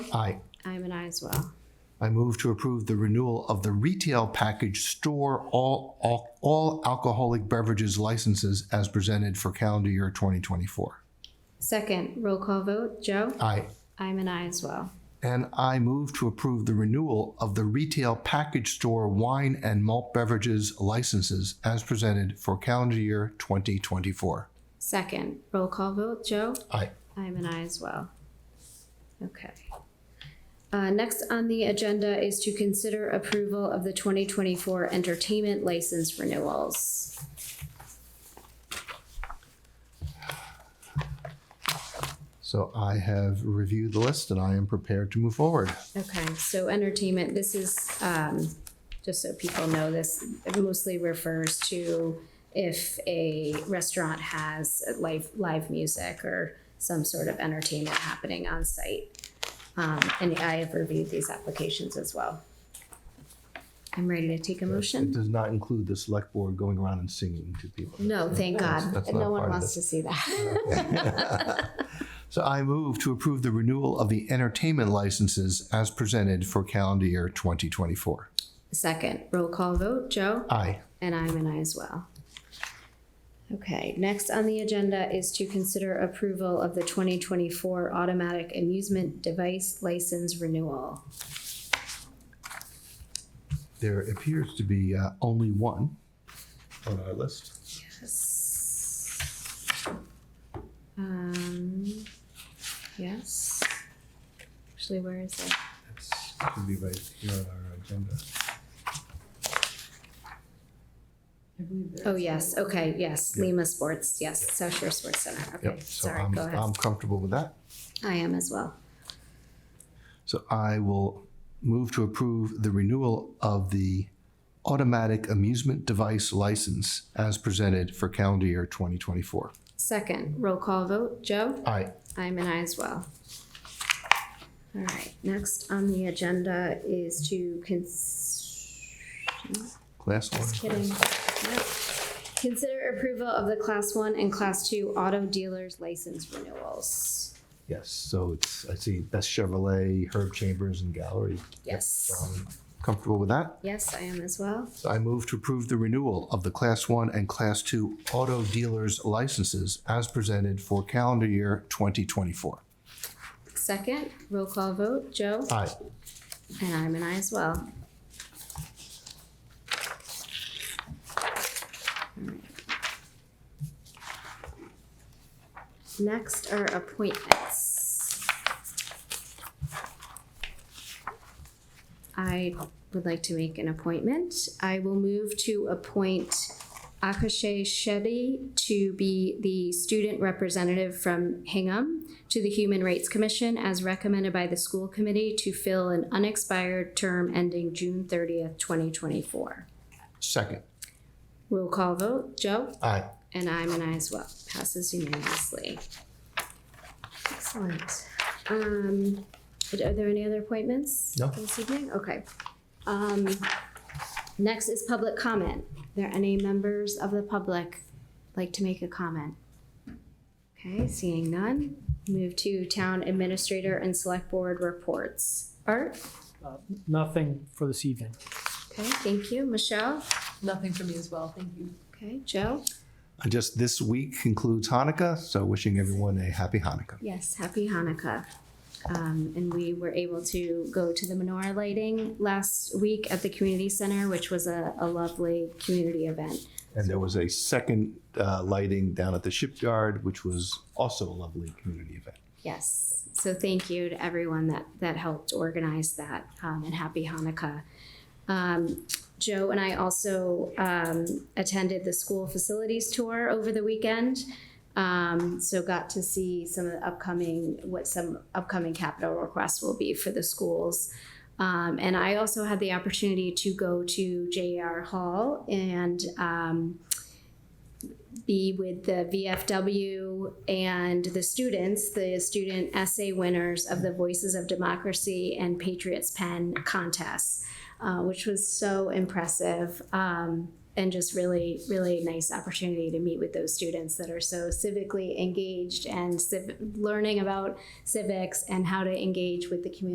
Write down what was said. Aye. I'm an I as well. I move to approve the renewal of the retail package store all, all, all alcoholic beverages licenses as presented for calendar year 2024. Second, roll call vote, Joe? Aye. I'm an I as well. And I move to approve the renewal of the retail package store wine and malt beverages licenses as presented for calendar year 2024. Second, roll call vote, Joe? Aye. I'm an I as well. Okay. Uh, next on the agenda is to consider approval of the twenty twenty-four entertainment license renewals. So I have reviewed the list and I am prepared to move forward. Okay, so entertainment, this is, um, just so people know, this mostly refers to if a restaurant has live, live music or some sort of entertainment happening on site. Um, and I have reviewed these applications as well. I'm ready to take a It motion. does not include the select board going around and singing to people. No, thank God. that's not No one part of wants this. to see that. So I move to approve the renewal of the entertainment licenses as presented for calendar year 2024. Second, roll call vote. Joe? Aye. And I'm an I as well. Okay, next on the agenda is to consider approval of the twenty twenty-four automatic amusement device license renewal. There appears to be uh, only one. on our list. Um, yes. Actually, where is it? It's should be right here on our agenda. Oh, yes, okay, yes, Lima Sports, yes, South Shore Sports Center, okay, Yep. So sorry, I'm, go ahead. I'm comfortable with that. I am as well. So I will move to approve the renewal of the automatic amusement device license as presented for calendar year 2024. Second, roll call vote, Joe? Aye. I'm an I as well. All right, next on the agenda is to cons- Last one. just kidding. Nope. Consider approval of the class one and class two auto dealers license renewals. Yes, so it's, I see Best Chevrolet, Herb Chambers and Gallery. Yes, Um, Comfortable with that? yes, I am as well. So I move to approve the renewal of the Class 1 and Class 2 auto dealers licenses as presented for calendar year 2024. Second, roll call vote, Joe? Aye. And I'm an I as well. Next are appointments. I would like to make an appointment. I will move to appoint Akashay Shetty to be the student representative from Hingham to the Human Rights Commission as recommended by the school committee to fill an unexpired term ending June thirtieth, twenty twenty-four. Second. Roll call vote, Joe? Aye. And I'm an I as well. Passes unanimously. Excellent. Um, are there any other appointments? No. This evening, okay. Um, next is public comment. Are there any members of the public like to make a comment? Okay, seeing none, move to town administrator and select board reports. Art, Nothing for this evening. okay, thank you. Michelle, Nothing for me as well, thank you. okay, Joe? And Just this week concludes Hanukkah, so wishing everyone a happy Hanukkah. Yes, happy Hanukkah. Um, and we were able to go to the menorah lighting last week at the community center, which was a, a lovely community event. And there was a second uh, lighting down at the shipyard, which was also a lovely community event. Yes. So thank you to everyone that, that helped organize that um, and happy Hanukkah. Um, Joe and I also um, attended the school facilities tour over the weekend. Um, so got to see some of the upcoming, what some upcoming capital requests will be for the schools. Um, and I also had the opportunity to go to JR Hall and um, be with the VFW and the students, the student essay winners of the Voices of Democracy and Patriots Pen contests, uh, which was so impressive um, and just really, really nice opportunity to meet with those students that are so civically engaged and civ- learning about civics and how to engage with the community.